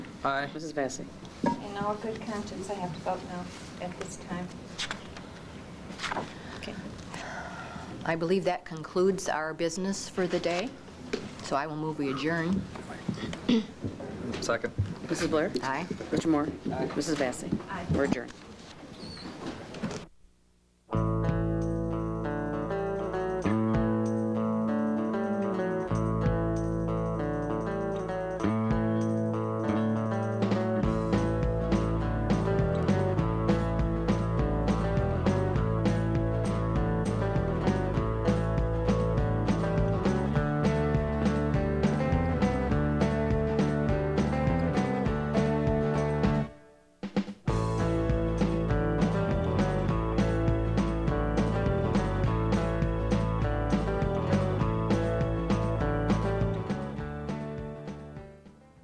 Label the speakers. Speaker 1: Aye.
Speaker 2: Mrs. Vacy?
Speaker 3: In all good conscience, I have to vote no at this time.
Speaker 2: Okay.
Speaker 4: I believe that concludes our business for the day, so I will move we adjourn.
Speaker 1: Second.
Speaker 2: Mrs. Blair?
Speaker 4: Aye.
Speaker 2: Richard Moore? Mrs. Vacy? Aye. We're adjourned.